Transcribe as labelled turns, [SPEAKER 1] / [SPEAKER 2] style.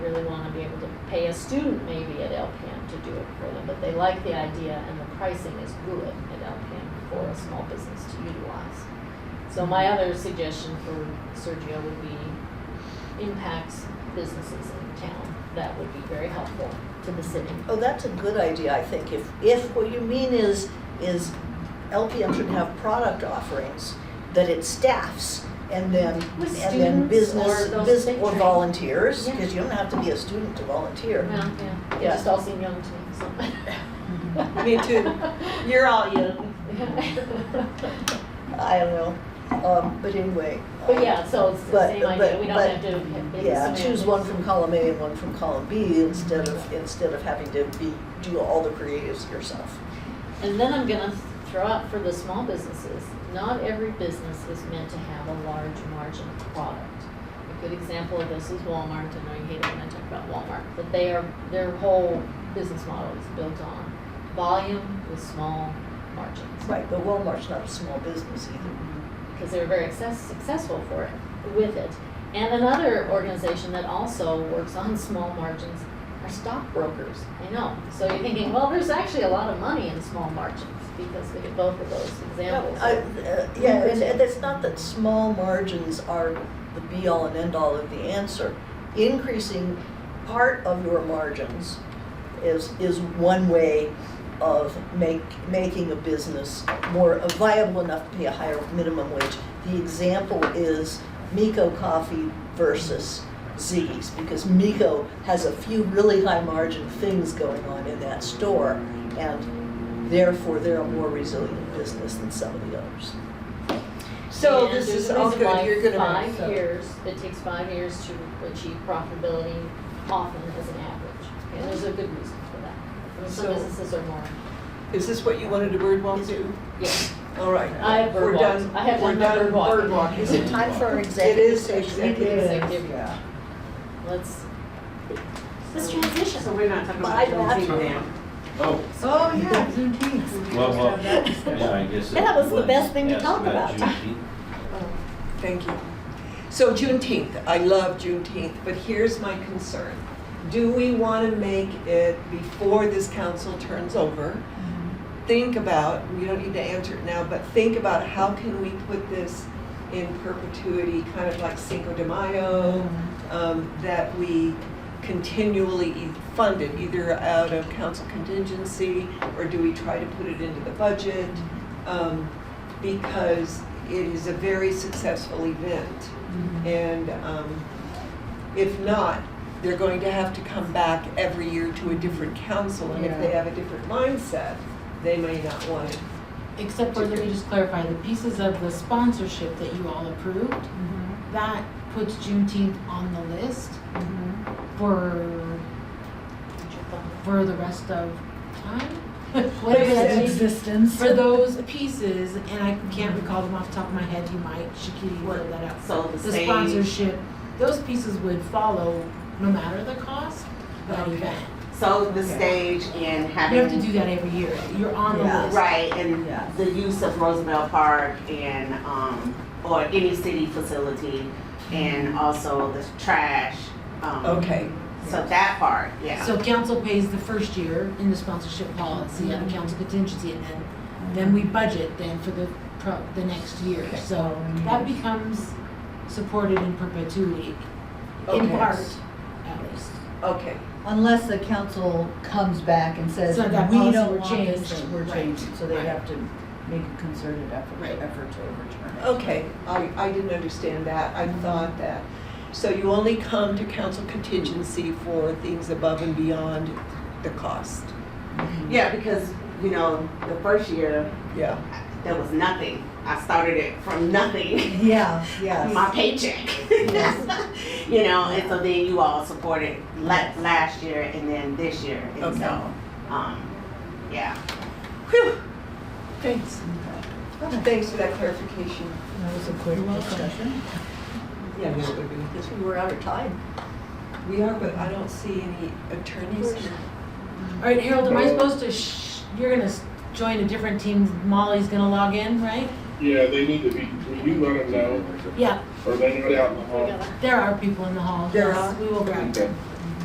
[SPEAKER 1] a student maybe at LPM to do it for them, but they like the idea and the pricing is good at LPM for a small business to utilize. So my other suggestion for Sergio would be impacts businesses in town. That would be very helpful to the city.
[SPEAKER 2] Oh, that's a good idea, I think. If, if what you mean is, is LPM should have product offerings that it staffs and then,
[SPEAKER 1] With
[SPEAKER 2] and then
[SPEAKER 1] students
[SPEAKER 2] business,
[SPEAKER 1] or those
[SPEAKER 2] bus-
[SPEAKER 1] they
[SPEAKER 2] or
[SPEAKER 1] train.
[SPEAKER 2] volunteers,
[SPEAKER 1] Yeah.
[SPEAKER 2] because you don't have to be a student to volunteer.
[SPEAKER 1] Well, yeah, they
[SPEAKER 2] Yeah.
[SPEAKER 1] just all seem young to me, so.
[SPEAKER 3] Me too. You're all young.
[SPEAKER 2] I don't know, um, but anyway.
[SPEAKER 1] But yeah, so it's the
[SPEAKER 2] But-
[SPEAKER 1] same idea,
[SPEAKER 2] but-
[SPEAKER 1] we don't
[SPEAKER 2] but-
[SPEAKER 1] have to. have big
[SPEAKER 2] Yeah, choose
[SPEAKER 1] semantics.
[SPEAKER 2] one from column A and one from column B instead of, instead of having to be, do all the creatives yourself.
[SPEAKER 1] And then I'm gonna throw out for the small businesses, not every business is meant to have a large margin product. A good example of this is Walmart, I know you hate it when I talk about Walmart, but they are, their whole business model is built on volume with small margins.
[SPEAKER 2] Right, but Walmart's not a small business either.
[SPEAKER 1] because they were very success, successful for it, with it. And another organization that also works on small margins are stockbrokers. I know. So you're thinking, well, there's actually a lot of money in small margins because we get both of those examples.
[SPEAKER 2] I- uh, Yeah, and and it's not that small margins are the be-all and end-all of the answer. Increasing part of your margins is, is one way of make, making a business more uh, viable enough to pay a higher minimum wage. The example is Miko Coffee versus Ziggy's, because Miko has a few really high margin things going on in that store, and therefore they're a more resilient business than some of the others.
[SPEAKER 3] So
[SPEAKER 1] And
[SPEAKER 3] this
[SPEAKER 1] there's
[SPEAKER 3] is
[SPEAKER 1] a
[SPEAKER 3] all
[SPEAKER 1] reason why
[SPEAKER 3] good, you're good at it.
[SPEAKER 1] Five years, it takes five years to achieve profitability often as an average. And there's a good reason for that. I mean, some
[SPEAKER 3] So-
[SPEAKER 1] businesses are more,
[SPEAKER 3] Is this what you wanted to birdwalk to?
[SPEAKER 1] yes.
[SPEAKER 3] All right.
[SPEAKER 1] I have
[SPEAKER 3] We're
[SPEAKER 1] birdwalked.
[SPEAKER 3] done-
[SPEAKER 1] I have
[SPEAKER 3] we're
[SPEAKER 1] done
[SPEAKER 3] done
[SPEAKER 1] birdwalking.
[SPEAKER 3] birdwalking.
[SPEAKER 2] Is it time for our
[SPEAKER 3] It
[SPEAKER 2] executive
[SPEAKER 3] is
[SPEAKER 2] session?
[SPEAKER 3] executive.
[SPEAKER 1] Executive.
[SPEAKER 3] yeah.
[SPEAKER 1] Let's, let's transition.
[SPEAKER 3] So we're not talking
[SPEAKER 2] Bye,
[SPEAKER 3] about
[SPEAKER 2] Matt.
[SPEAKER 3] Juneteenth now.
[SPEAKER 4] Oh,
[SPEAKER 3] Oh, yeah.
[SPEAKER 4] well, well, yeah, I guess.
[SPEAKER 1] That was the
[SPEAKER 4] it
[SPEAKER 1] best thing to
[SPEAKER 4] asked
[SPEAKER 1] talk about.
[SPEAKER 4] Juneteenth.
[SPEAKER 3] Thank you. So Juneteenth, I love Juneteenth, but here's my concern. Do we want to make it before this council turns over? Think about, you don't need to answer it now, but think about how can we put this in perpetuity, kind of like Cinco de Mayo, um, that we continually e- fund it, either out of council contingency, or do we try to put it into the budget? Um, because it is a very successful event. And um, if not, they're going to have to come back every year to a different council. And if they have a different mindset, they may not want it.
[SPEAKER 5] Except for, let me just clarify, the pieces of the sponsorship that you all approved, that puts Juneteenth on the list for, for the rest of time? What is it?
[SPEAKER 6] existence.
[SPEAKER 5] For those pieces, and I can't recall them off the top of my head, you might, Shakiti, look that up.
[SPEAKER 3] So
[SPEAKER 5] The sponsorship, those pieces would follow no matter the cost, that
[SPEAKER 3] Okay.
[SPEAKER 5] event.
[SPEAKER 7] sold the
[SPEAKER 3] Okay.
[SPEAKER 7] stage and
[SPEAKER 5] You have to
[SPEAKER 7] having,
[SPEAKER 5] do that every year, you're on the
[SPEAKER 2] Yeah.
[SPEAKER 5] list.
[SPEAKER 7] right, and
[SPEAKER 3] Yeah.
[SPEAKER 7] the use of Roosevelt Park and, um, or any city facility
[SPEAKER 5] Mm-hmm.
[SPEAKER 7] and also the trash. um,
[SPEAKER 3] Okay.
[SPEAKER 7] So that part, yeah.
[SPEAKER 5] So council pays the first year in the sponsorship policy
[SPEAKER 3] Mm-hmm.
[SPEAKER 5] and the council contingency, and then, then we budget then for the pro, the next year. So that
[SPEAKER 3] Mm-hmm.
[SPEAKER 5] becomes supported in perpetuity, in
[SPEAKER 3] Okay.
[SPEAKER 5] part, at least.
[SPEAKER 3] Okay.
[SPEAKER 6] Unless the council comes back and says,
[SPEAKER 5] So that
[SPEAKER 6] we
[SPEAKER 5] policy
[SPEAKER 6] don't
[SPEAKER 5] will
[SPEAKER 6] want
[SPEAKER 5] change,
[SPEAKER 6] this, and we're
[SPEAKER 5] right,
[SPEAKER 6] changing, so they
[SPEAKER 5] right.
[SPEAKER 6] have to make a concerted effort,
[SPEAKER 5] Right.
[SPEAKER 6] effort to overturn it.
[SPEAKER 3] Okay, I, I didn't understand that, I thought that. So you only come to council contingency for things above and beyond the cost,
[SPEAKER 7] Yeah, because, you know, the first year,
[SPEAKER 3] yeah.
[SPEAKER 7] there was nothing. I started it from nothing,
[SPEAKER 6] Yeah, yeah.
[SPEAKER 7] my paycheck. You know, and so then you all supported la- last year and then this year, and
[SPEAKER 3] Okay.
[SPEAKER 7] so, um, yeah.
[SPEAKER 3] Whew, thanks. Thanks for that clarification.
[SPEAKER 6] That was a quick discussion.
[SPEAKER 3] Yeah, that would be.
[SPEAKER 2] Because we were out of time.
[SPEAKER 3] We are, but I don't see any attorneys here.
[SPEAKER 5] All right, Harold, am I supposed to sh, you're gonna s- join a different team, Molly's gonna log in, right?
[SPEAKER 8] Yeah, they need to be, will you let them know,
[SPEAKER 5] Yeah,
[SPEAKER 8] or they know it out in the
[SPEAKER 1] We
[SPEAKER 8] hall.
[SPEAKER 1] gotta-
[SPEAKER 5] there are people in the hall.
[SPEAKER 3] There
[SPEAKER 5] Yes,
[SPEAKER 3] are?
[SPEAKER 5] We will grab them.